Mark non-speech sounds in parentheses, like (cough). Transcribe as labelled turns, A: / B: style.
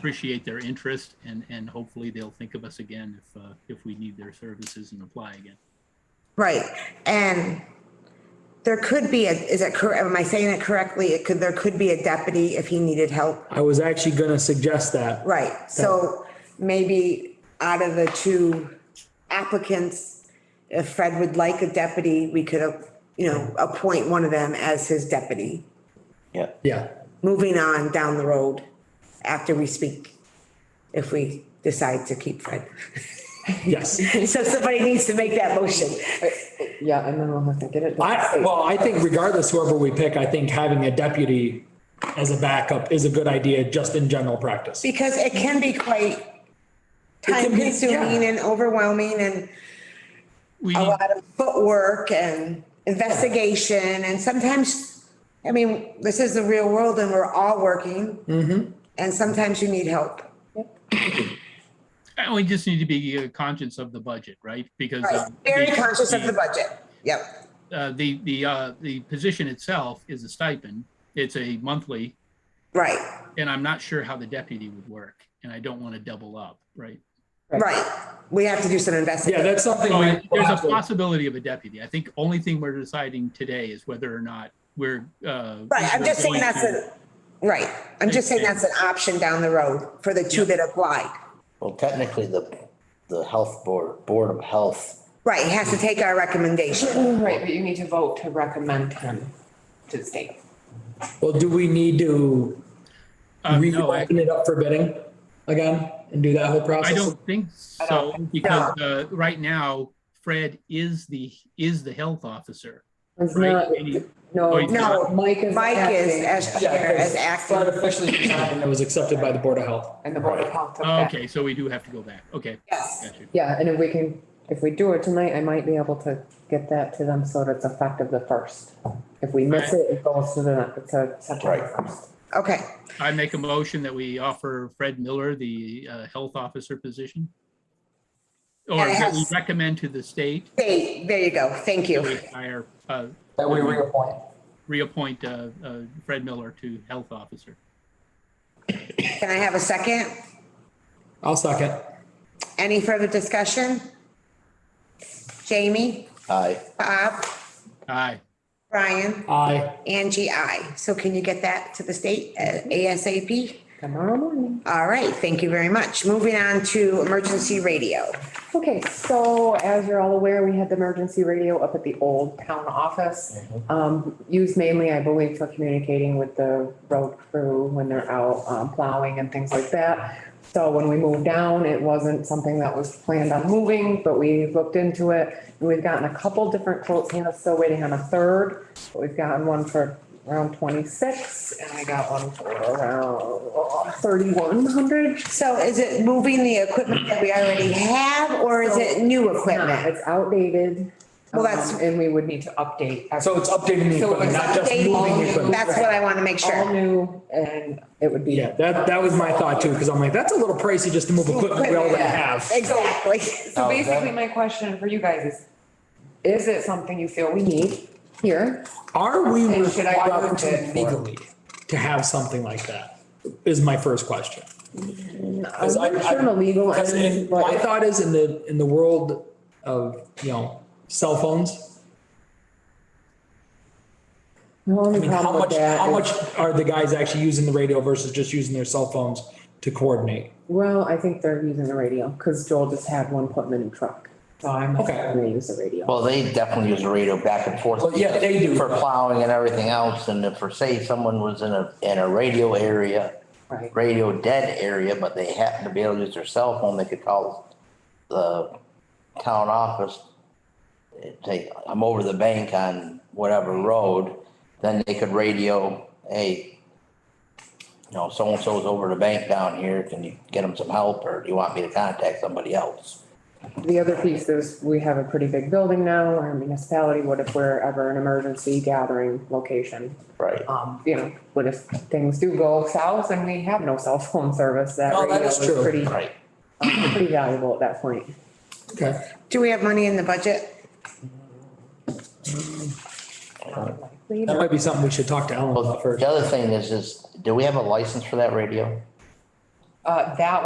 A: appreciate their interest and, and hopefully they'll think of us again if, uh, if we need their services and apply again.
B: Right, and there could be, a is it correct, am I saying it correctly? It could, there could be a deputy if he needed help.
C: I was actually gonna suggest that.
B: Right, so maybe out of the two applicants, if Fred would like a deputy, we could, uh, you know, appoint one of them as his deputy.
D: Yeah,
C: Yeah,
B: Moving on down the road after we speak, if we decide to keep Fred. (laughs)
C: yes.
B: So somebody needs to make that motion.
E: Yeah, and then we'll have to get it. to the
C: I,
E: state.
C: well, I think regardless whoever we pick, I think having a deputy as a backup is a good idea just in general practice.
B: Because it can be quite time
C: can be, yeah.
B: consuming and overwhelming and
A: We
B: a
A: need-
B: lot of footwork and investigation and sometimes, I mean, this is the real world and we're all working. And sometimes you need help.
A: And we just need to be uh, conscious of the budget, right? Because.
B: Right,
A: um,
B: very
A: the-
B: conscious of the budget. Yep,
A: Uh, the, the, uh, the position itself is a stipend. It's a monthly,
B: right,
A: and I'm not sure how the deputy would work, and I don't want to double up, right?
B: right. We have to do some
C: Yeah,
B: investigation.
C: that's something.
A: So
B: Oh,
C: we-
A: Oh, there's a possibility of a deputy. I think only thing we're deciding today is whether or not we're, uh.
B: Right, I'm just saying
A: going
B: that's
A: to-
B: a, right, I'm just saying that's an option down the road for the two that applied.
D: well, technically, the, the health board, Board of Health,
B: Right, has to take our recommendation.
E: Right, but you need to vote to recommend him to the state.
C: Well, do we need to
A: Um, no, I-
C: reopen it up for bidding again and do that whole process?
A: I don't think
E: I
A: so,
E: don't
A: because, uh, right now, Fred is the, is the health officer.
E: It's
A: Right.
E: not,
A: Any- Oh,
E: no.
A: he's No,
B: not.
E: Mike is.
B: Mike is
E: acting,
B: as
C: Yeah,
B: chair, as
C: because Fred
B: acting.
C: officially resigned and it was accepted by the Board of Health.
E: And the board of health took
A: Oh,
E: that.
A: Okay, so we do have to go back. Okay.
B: Yes.
A: got you.
E: Yeah, and if we can, if we do it tonight, I might be able to get that to them so that it's effective the first. If we miss it, it goes to the, to September
D: Right.
E: first.
B: Okay,
A: I make a motion that we offer Fred Miller the uh, health officer position. Or
B: Yeah, it
A: that we
B: has-
A: recommend to the state
B: They- there you go, thank
A: that
B: you.
A: we hire, uh,
C: That we reappoint.
A: reappoint uh, uh, Fred Miller to health officer.
B: Can I have a second?
C: I'll second.
B: Any further discussion? Jamie,
D: I,
B: Bob,
A: Aye.
B: Brian,
C: Aye.
B: Angie, I. So can you get that to the state uh, ASAP?
E: Tomorrow morning.
B: All right, thank you very much. Moving on to emergency radio.
E: Okay, so as you're all aware, we had the emergency radio up at the old town office. Um, used mainly, I believe, for communicating with the road crew when they're out um, plowing and things like that. So when we moved down, it wasn't something that was planned on moving, but we looked into it. And We've gotten a couple different quotes, Hannah's still waiting on a third. But We've gotten one for around twenty-six and I got one for around thirty-one hundred.
B: So is it moving the equipment that we already have or is it new
E: No,
B: equipment?
E: It's outdated.
B: Well, that's-
E: um, And we would need to update.
C: So it's updating the
E: So
C: equipment,
E: it's
C: not just moving the equipment.
B: That's what I want to make
E: All
B: sure.
E: new and it would be.
C: Yeah, that, that was my thought too, because I'm like, that's a little pricey just to move equipment we already have.
B: Exactly. (laughs)
C: Oh,
E: So basically, my question for you guys is, is it something you feel we need here?
C: Are we
E: And should I
C: required
E: move
C: to
E: it?
C: legally to have something like that? Is my first question. Because I-
E: I'm not sure on the legal
C: Because in-
E: end,
C: my
E: but
C: thought is in the, in the world of, you know, cell phones,
E: the
C: I
E: only
C: mean, how
E: problem
C: much,
E: with that
C: how
E: is-
C: much are the guys actually using the radio versus just using their cell phones to coordinate?
E: well, I think they're using the radio because Joel just had one put in a new truck. So I'm
C: Okay.
E: gonna use the radio.
D: well, they definitely use the radio back and forth.
C: Well, yeah, they do.
D: For plowing and everything else, and if, for say, someone was in a, in a radio area,
E: Right.
D: radio dead area, but they happen to be able to use their cell phone, they could call the town office. Say, I'm over the bank on whatever road, then they could radio, hey, you know, so-and-so's over the bank down here, can you get them some help, or do you want me to contact somebody else?
E: The other piece is we have a pretty big building now, our municipality, what if we're ever an emergency gathering location?
D: Right.
E: um, you know, what if things do go south and we have no cell phone service, that
C: Oh, that
E: radio
C: is
E: is
C: true.
E: pretty,
D: Right.
E: um, pretty valuable at that point.
C: Okay.
B: Do we have money in the budget?
C: That might be something we should talk to Ellen about
D: Well,
C: first.
D: the other thing is, is do we have a license for that radio?
E: Uh, that